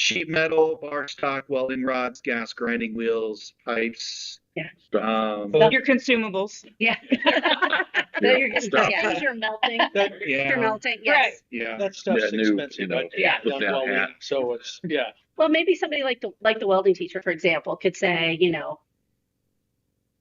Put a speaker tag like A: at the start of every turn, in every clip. A: sheet metal, bar stock, welding rods, gas grinding wheels, pipes.
B: Yeah.
A: Um,
B: Stuff.
C: Your consumables.
B: Yeah.
D: Yeah,
B: So you're just,
D: stuff.
B: yeah, 'cause you're melting,
E: That,
B: you're
A: yeah,
B: melting, yes.
A: yeah.
E: that stuff's
D: That new, you
E: expensive.
D: know,
E: but
B: yeah,
E: done
D: put down
E: well,
D: hat.
E: So it's, yeah.
B: Well, maybe somebody like the, like the welding teacher, for example, could say, you know,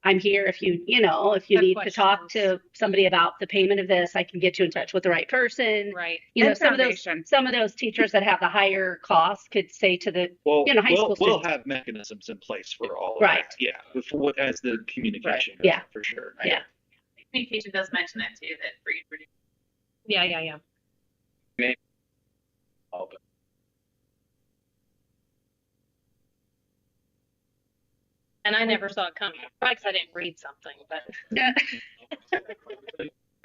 B: I'm here if you, you know, if you
F: Have
B: need to talk to somebody about the payment of this, I can get you in touch with the right person.
F: Right.
B: You know,
F: And
B: some of those,
F: foundation.
B: some of those teachers that have the higher costs could say to the,
A: Well,
B: You know, high
A: we'll,
B: school
A: we'll
B: students.
A: have mechanisms in place for all of
B: Right.
A: that. Yeah, before, as the communication.
B: Right, yeah.
A: goes, For sure.
B: Yeah.
G: Communication does mention that too, that for you.
F: Yeah, yeah, yeah. And I never saw it coming, probably 'cause I didn't read something, but.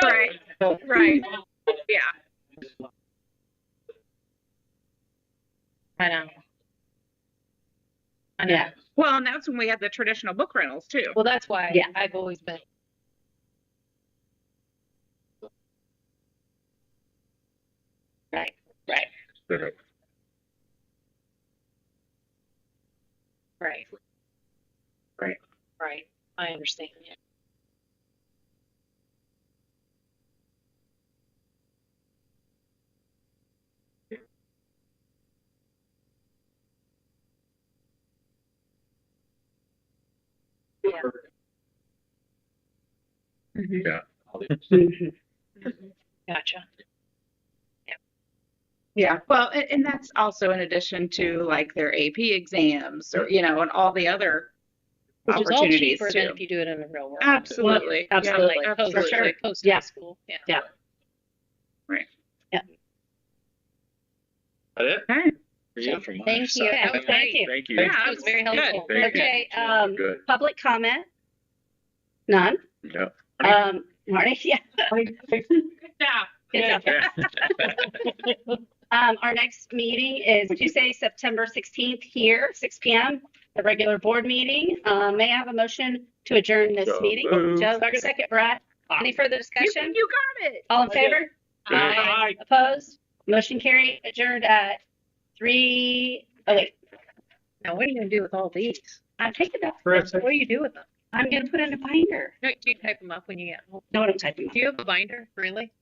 G: Right, right. Yeah.
F: I know. I know.
B: yeah,
G: Well, and that's when we had the traditional book rentals too.
F: Well, that's why
B: Yeah.
F: I've always been.
B: right, right,
F: Right.
B: Right.
F: Right. I understand. Yeah.
B: Mhm. Mhm.
G: Mm-hmm.
F: Gotcha.
G: Yeah. Well, and, and that's also in addition to like their AP exams or, you know, and all the other
F: Which is all
G: opportunities
F: cheaper than
G: too.
F: if you do it in the real world.
G: Absolutely. Oh, Yeah,
B: Absolutely.
F: Post,
B: For sure.
F: Post
B: Yeah.
F: high school. Yeah.
A: That it?
G: Okay.
A: For you?
D: From my
B: Thank you.
D: side.
B: That was- thank you.
D: Thank you.
G: Yeah,
B: That was very
G: good.
B: helpful.
D: Thank you.
B: Okay, um,
D: Good.
B: public comment? None?
D: Yeah.
B: Um, Marty, yeah.
G: Good job.
B: Good job. Um, our next meeting is Tuesday, September sixteenth here, six P M. The regular board meeting. Uh, may I have a motion to adjourn this
D: So
B: meeting?
D: moved.
B: Joe, second, Brett. Any further
G: You,
B: discussion?
G: you got it.
B: All in favor? Aye.
D: Aye.
B: Opposed? Motion carried, adjourned at three, oh wait,
F: Now, what are you going to do with all these?
B: I'm taking that.
E: Chris,
F: What do you do with them?
B: I'm gonna put in a binder.
F: No, do you type them up when you get home?
B: Know what I'm typing? Oh.
F: Do you have a binder? Really?